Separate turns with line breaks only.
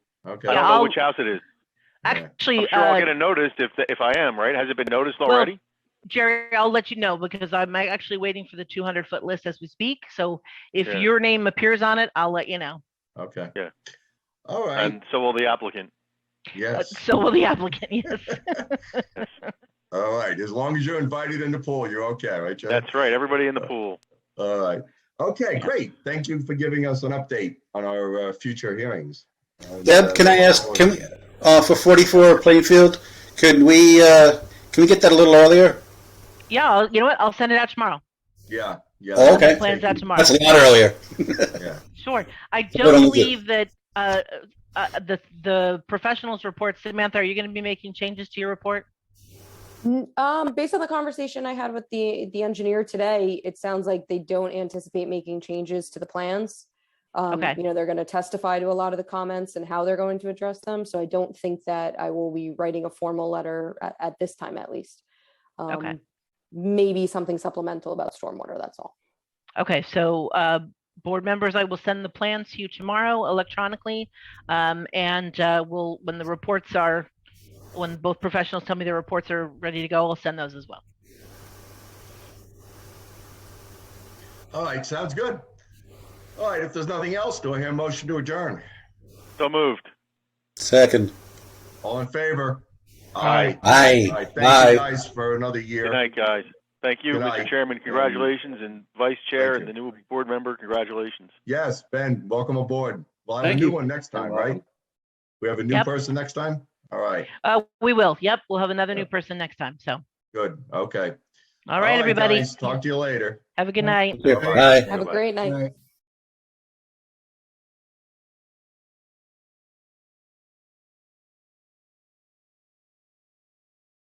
I
Yeah,
don't
Okay,
know
I'll-
which house it is. I'm
Actually,
sure I'll
uh,
get a notice if, if I am, right? Has it been noticed
Well,
already?
Jerry, I'll let you know because I'm actually waiting for the 200 foot list as we speak. So if
Yeah.
your name appears on it, I'll let you know.
okay.
Yeah.
All right,
And so will the applicant.
Uh,
yes,
So will the applicant, yes.
all right. As long as you're invited in the pool, you're okay, right, Joe?
That's right, everybody in the pool.
All right. Okay, great. Thank you for giving us an update on our uh, future hearings. And, uh,
Deb, can I ask, can we, uh, for 44 Plainfield, could we, uh, can we get that a little earlier?
Yeah, I'll- you know what? I'll send it out tomorrow.
Yeah, yeah.
Oh, okay.
Plans out tomorrow.
That's a lot earlier.
Sure. I
what I'm
don't
gonna do.
believe that, uh, uh, the, the professionals report, Samantha, are you going to be making changes to your report?
N- Um, based on the conversation I had with the, the engineer today, it sounds like they don't anticipate making changes to the plans. Um,
Okay.
you know, they're gonna testify to a lot of the comments and how they're going to address them, so I don't think that I will be writing a formal letter at, at this time at least.
Okay.
Um, Maybe something supplemental about stormwater, that's all.
Okay, so, uh, board members, I will send the plans to you tomorrow electronically. Um, and, uh, we'll, when the reports are, when both professionals tell me their reports are ready to go, I'll send those as well.
All right, sounds good. All right, if there's nothing else, do I hear a motion to adjourn?
So moved.
Second.
All in favor?
Aye.
All
Aye.
right, thank you
Aye.
guys for another
Good
year.
night, guys. Thank you,
Good
Mr.
night.
Chairman. Congratulations and Vice Chair
Thank
and the new board member, congratulations.
Yes, Ben, welcome aboard. We'll have a
Thank
new
you.
one next time,
You're welcome.
right? We have a new
Yep.
person next time? All right,
Uh, we will. Yep, we'll have another new
Yep.
person next time. So,
good, okay.
all right, everybody,
guys, Talk to you later.
have a good night.
Aye.
Have a
Bye-bye.
great night.
Good night.